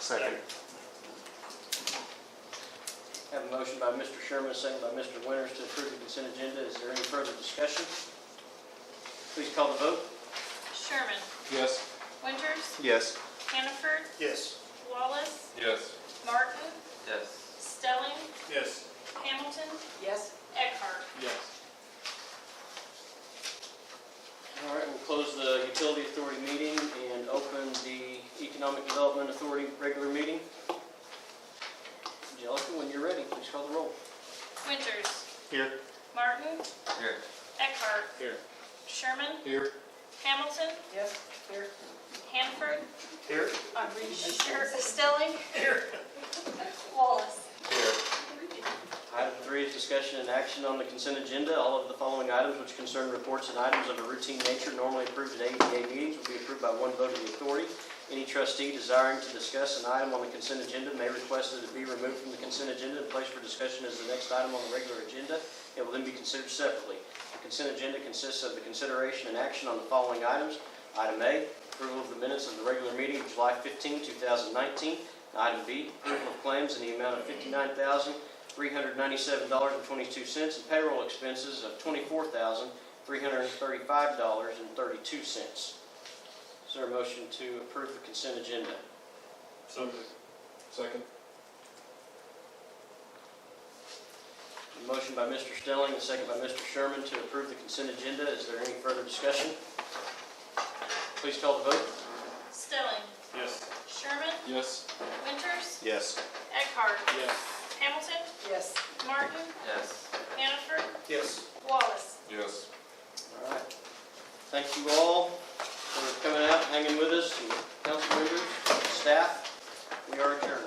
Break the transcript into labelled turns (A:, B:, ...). A: Second.
B: Have a motion by Mr. Sherman, second by Mr. Winters to approve the consent agenda. Is there any further discussion? Please call the vote.
C: Sherman.
D: Yes.
C: Winters.
A: Yes.
C: Hannaford.
E: Yes.
C: Wallace.
D: Yes.
C: Martin.
F: Yes.
C: Stelling.
E: Yes.
C: Hamilton.
G: yes,
C: Eckhart.
D: Yes.
B: All right, we'll close the utility authority meeting and open the economic development authority regular meeting. Angelica, when you're ready, please call the roll.
C: Winters.
A: Here.
C: Martin.
F: Here.
C: Eckhart.
D: Here.
C: Sherman.
D: Here.
C: Hamilton.
G: yes, here.
C: Hannaford.
E: Here?
G: I'm reading.
C: Sher- Stelling. Wallace.
D: Here.
B: Item three is discussion and action on the consent agenda. All of the following items which concern reports and items of a routine nature normally approved at ADA meetings will be approved by one vote of the authority. Any trustee desiring to discuss an item on the consent agenda may request that it be removed from the consent agenda and placed for discussion as the next item on the regular agenda. It will then be considered separately. The consent agenda consists of the consideration and action on the following items. Item A, approval of the minutes of the regular meeting of July 15, 2019. Item B, approval of claims in the amount of 59000 $397.22 and payroll expenses of $24,335.32. Is there a motion to approve the consent agenda?
E: So moved.
D: Second.
B: A motion by Mr. Stelling, a second by Mr. Sherman to approve the consent agenda. Is there any further discussion? Please call the vote.
C: Stelling.
E: Yes.
C: Sherman.
D: Yes.
C: Winters.
A: Yes.
C: Eckhart.
D: Yes.
C: Hamilton.
G: Yes,
C: Martin.
F: Yes.
C: Hannaford.
E: Yes.
C: Wallace.
D: Yes.
B: All right. Thank you all for coming out, hanging with us, and council members, staff. We are adjourned.